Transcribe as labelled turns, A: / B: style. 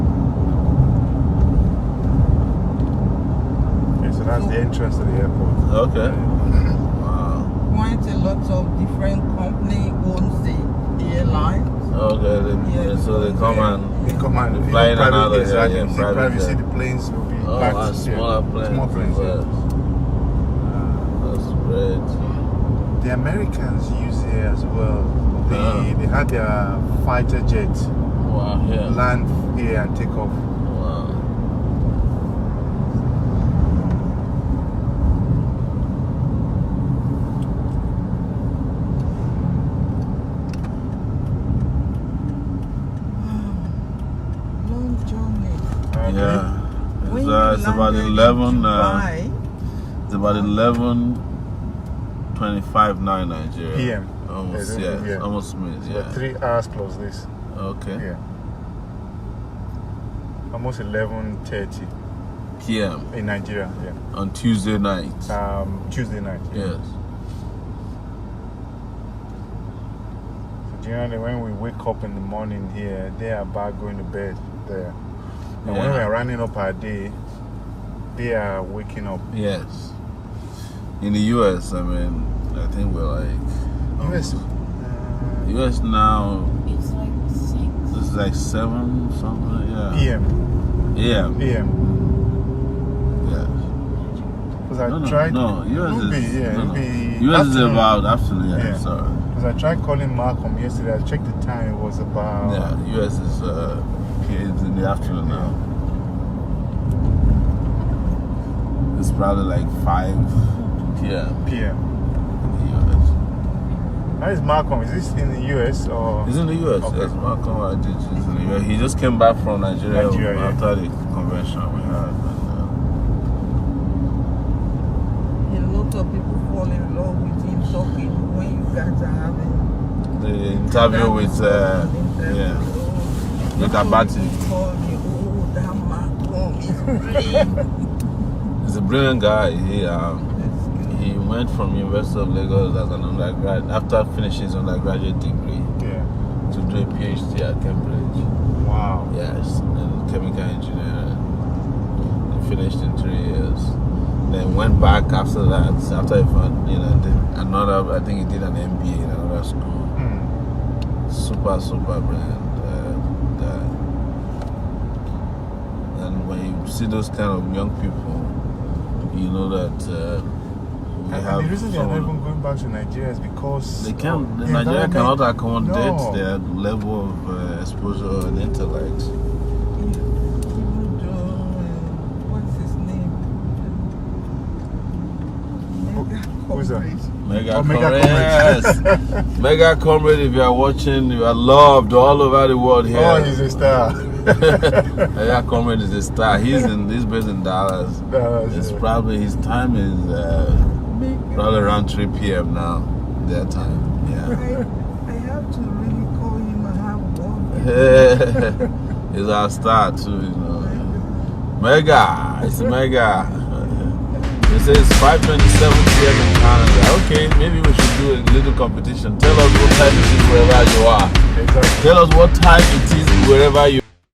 A: the entrance to the airport.
B: Okay. Wow.
C: Quite a lot of different company owns the airline.
B: Okay. Then,
C: Yeah.
B: then so they come and
A: They come and
B: The plane
A: private,
B: and all that, yeah,
A: exactly.
B: yeah,
A: You see
B: private
A: private, see
B: jet.
A: the planes will be
B: oh,
A: packed.
B: a
A: yeah,
B: smaller plane.
A: Small planes.
B: Well,
A: Yeah. Uh,
B: That's great.
A: the Americans use it as well. They
B: Yeah.
A: they had their fighter jet
B: Wow. Ah. Yeah.
A: land here and take off.
B: Wow.
C: Long journey.
B: Yeah.
C: When
B: It's,
C: you
B: uh, it's about
C: landed in
B: eleven. Uh,
C: Dubai,
B: it's about eleven twenty-five now in Nigeria.
A: PM.
B: Almost.
A: Yeah,
B: Yeah.
A: yeah.
B: Almost minutes.
A: So
B: Yeah.
A: three hours plus this.
B: Okay.
A: Yeah. Almost eleven thirty
B: PM
A: in Nigeria. Yeah.
B: on Tuesday night.
A: Um, Tuesday night.
B: Yes.
A: So generally, when we wake up in the morning here, they are back going to bed there. And when
B: Yeah.
A: we are running up our day, they are waking up.
B: Yes. In the US, I mean, I think we're like
A: US.
B: US now.
D: It's like six.
B: This is like seven something. Yeah.
A: PM.
B: Yeah.
A: PM.
B: Yeah.
A: Because I
B: No, no,
A: tried.
B: no. US
A: It'll
B: is
A: be, yeah,
B: no, no.
A: it'll be
B: US is
A: afternoon.
B: about afternoon. Yeah.
A: Yeah.
B: Sorry.
A: Because I tried calling Malcolm yesterday. I checked the time. It was about.
B: Yeah. US is uh, it's in the afternoon now. It's probably like five p.m.
A: PM.
B: in the US.
A: How is Malcolm? Is this in the US or?
B: He's in the U.S.
A: Okay.
B: Yes, Malcolm Adjich is in the U.S. He just came back from Nigeria,
A: Nigeria, yeah.
B: after the convention we had. And,
C: a
B: uh,
C: lot of people fall in love with him talking when you guys are having
B: uh, the interview
C: that
B: with uh,
C: interview.
B: yeah,
C: Oh,
B: with
C: people
B: Abati.
C: will call me, Oh, that Malcolm is great.
B: he's a brilliant guy. He um,
C: That's good.
B: he went from University of Lagos as an undergrad after finishing his undergraduate degree
A: Yeah.
B: to do a PhD at Cambridge.
A: Wow.
B: Yes, in chemical engineering. He finished in three years. Then went back after that. After he found, you know, did another. I think he did an MBA in another school.
A: Hmm.
B: super super brilliant uh, uh, and when you see those kind of young people you know that uh, we
A: And
B: have
A: the reason they are not
B: some-
A: even going back to Nigeria is because
B: they can
A: the
B: Nigeria
A: environment-
B: cannot accommodate
A: No.
B: their level of uh, exposure and
C: Even
B: intellect
C: though, uh, what's his name?
A: Who-
C: Mega
A: who's that?
C: corporate.
B: Mega,
A: Oh, mega
B: comrade,
A: comrades.
B: yes. mega comrade if you are watching you are loved all over the world here
A: Oh, he's a star.
B: mega comrade is a star he's in he's based in Dallas
A: That's
B: it's
A: it.
B: probably his time is uh,
C: Mega-
B: Probably around 3 p.m. now, their time. Yeah.
C: I, I have to really call him and have one.
B: He's our star too, you know. Mega, it's mega. They say it's 5:27 p.m. in Canada. Okay, maybe we should do a little competition. Tell us what time it is wherever you are.
A: Exactly.
B: Tell us what time it is wherever you.